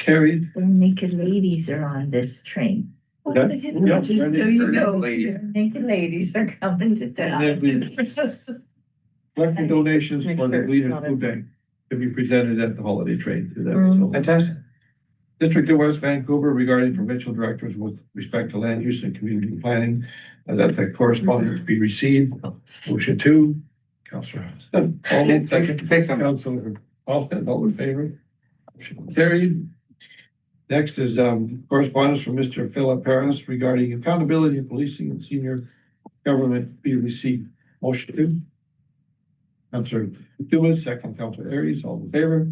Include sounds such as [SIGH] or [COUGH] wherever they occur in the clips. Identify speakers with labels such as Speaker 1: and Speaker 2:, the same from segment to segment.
Speaker 1: carried.
Speaker 2: The naked ladies are on this train.
Speaker 1: Okay. Yeah,
Speaker 2: Just so
Speaker 1: ready for
Speaker 2: you know,
Speaker 1: lady.
Speaker 2: [LAUGHS] naked ladies are coming to town.
Speaker 1: then we- Collecting donations for the Leader Food Bank to be presented at the holiday trade. to that result.
Speaker 3: Fantastic.
Speaker 1: District of West Vancouver regarding provincial directors with respect to land use and community planning. uh, That the correspondence be received. Motion two. Counselor. All in favor?
Speaker 3: Take some.
Speaker 1: Counselor Austin, all in favor? Motion Carried. Next is um, correspondence from Mr. Philip Paris regarding accountability in policing and senior government be received. Motion two. Counselor Dewey, second Counselor Aries, all in favor?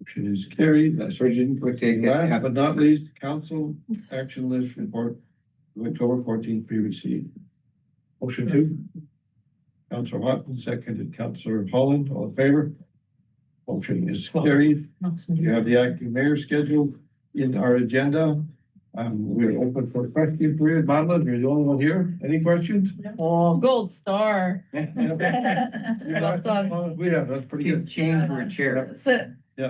Speaker 1: Motion is carried. That's
Speaker 3: Sorry, didn't we take that?
Speaker 1: Last but not least, council action list report, of October fourteenth, be received. Motion two. Counselor Watkins, seconded Counselor Holland, all in favor? Motion is carried. You have the acting mayor scheduled in our agenda. Um, we're open for question period. Madeline, you're the only one here. Any questions?
Speaker 4: Oh, gold
Speaker 1: [LAUGHS]
Speaker 4: star.
Speaker 1: Yeah.
Speaker 4: We're
Speaker 1: Yeah, I
Speaker 4: not
Speaker 1: think, uh, We have, that's pretty good.
Speaker 3: Chamber chair.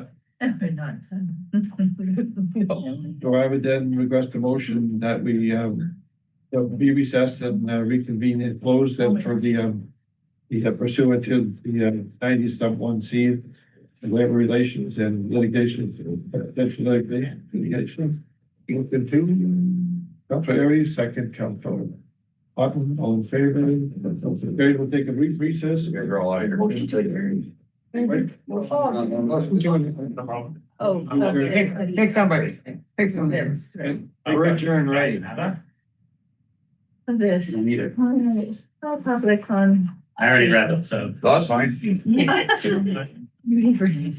Speaker 2: [LAUGHS]
Speaker 4: done.
Speaker 1: So I would then request a motion that we um that be recessed and uh, reconvene and close them for the um the pursuant to the uh, ninety sub one C labor relations and litigation, uh, potential litigation, litigation. Motion two, Counselor Aries, second, Counselor Houghton, all in favor? Very, we'll take a brief recess.
Speaker 3: You're all out
Speaker 1: Motion to adjourn. Right?
Speaker 3: Unless we join.
Speaker 4: Oh,
Speaker 1: okay.
Speaker 3: Take take somebody, take somebody. We're adjourned, right?
Speaker 2: This.
Speaker 5: Need it.
Speaker 2: All public on.
Speaker 5: I already read it, so.
Speaker 3: [LAUGHS]
Speaker 5: [LAUGHS]
Speaker 3: That's fine.
Speaker 2: [LAUGHS]
Speaker 3: Tom
Speaker 2: Water.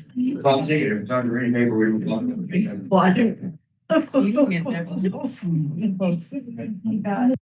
Speaker 3: Ziegler, time to read neighbor, we
Speaker 2: [LAUGHS]
Speaker 3: were talking.
Speaker 2: You [LAUGHS]
Speaker 4: never
Speaker 2: Thanks.